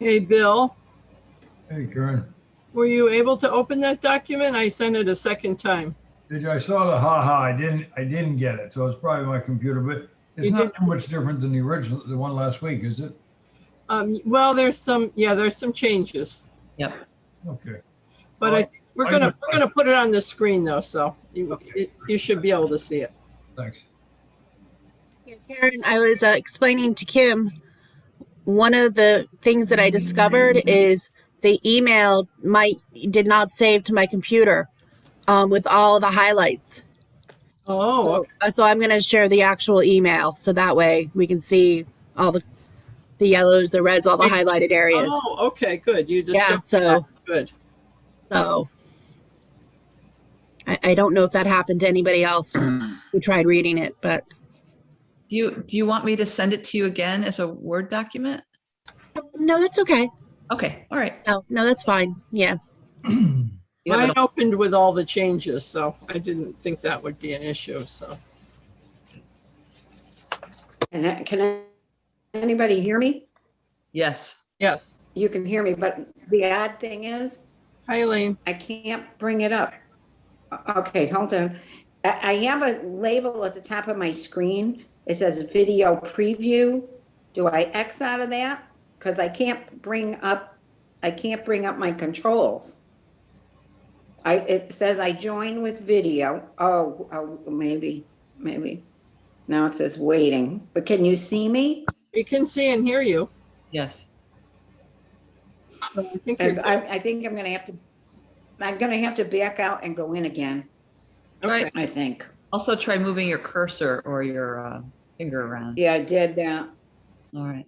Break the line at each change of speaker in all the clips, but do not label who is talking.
Hey, Bill,
Hey, Karen,
were you able to open that document? I sent it a second time.
did you, I saw the ha-ha, I didn't, I didn't get it, so it's probably my computer, but it's
You
not too much different than the original, the one last week, is it?
Um, well, there's some, yeah, there's some changes,
Okay,
but I, think we're gonna,
Oh, I-
we're gonna put it on the screen though, so you,
Okay.
you should be able to see it.
thanks.
Yeah, Karen, I was uh, explaining to Kim, one of the things that I discovered is the email my did not save to my computer um, with all the highlights.
Oh, okay.
Uh, So I'm going to share the actual email so that way we can see all the the yellows, the reds, all the highlighted areas.
oh, okay, good. You
yeah,
discovered,
so
that. good.
so I, I don't know if that happened to anybody else who tried reading it, but
Do you, do you want me to send it to you again as a Word document?
no, that's okay.
Okay, all right.
No, no, that's fine. Yeah.
You have
Mine
it all-
opened with all the changes, so I didn't think that would be an issue, so.
And that- can anybody hear me?
Yes,
Yes.
You can hear me, but the odd thing is,
Hi, Elaine.
I can't bring it up. Okay, hold on. I, I have a label at the top of my screen. It says video preview. Do I X out of that? Because I can't bring up, I can't bring up my controls. I, it says I join with video. Oh, oh, maybe, maybe. Now it says waiting, but can you see me?
We can see and hear you.
yes.
So I think
And
you're-
I, I think I'm gonna have to, I'm gonna have to back out and go in again,
okay.
Right.
I think.
Also try moving your cursor or your uh, finger around.
Yeah, I did that.
All right.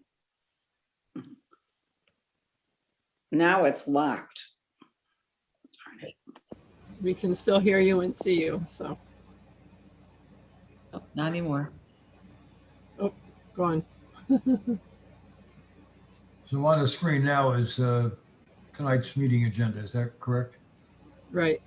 Now it's locked.
We can still hear you and see you, so
Oh, Not anymore.
go on.
So on the screen now is, uh, tonight's meeting agenda, is that correct?
Right.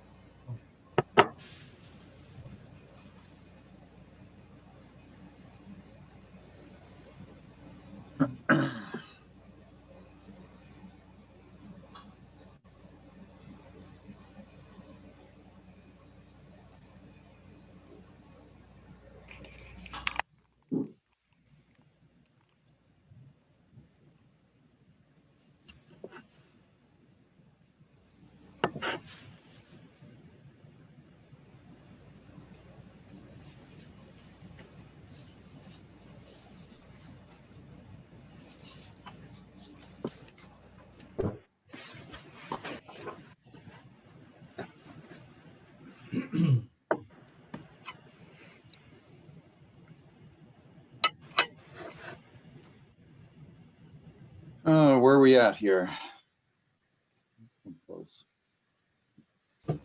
Uh, where are we at here?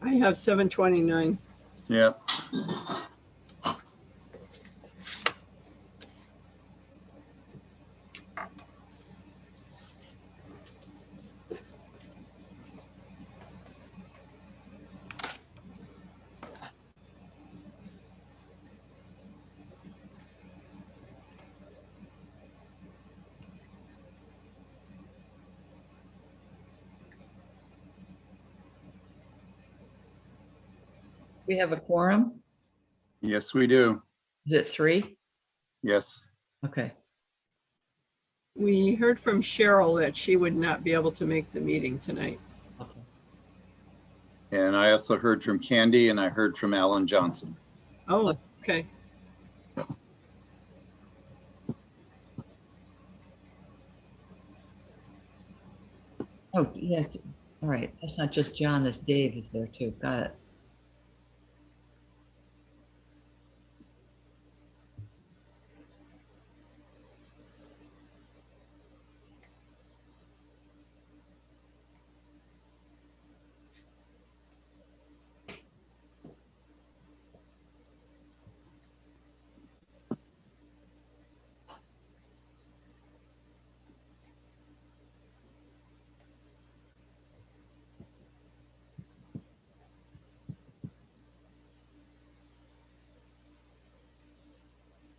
I have seven twenty-nine.
Yeah.
We have a quorum.
Yes, we do.
Is it three?
Yes.
Okay.
We heard from Cheryl that she would not be able to make the meeting tonight.
Okay.
And I also heard from Candy and I heard from Alan Johnson.
Oh, okay.
Oh, yeah. All right. That's not just John, that's Dave is there too. Got it.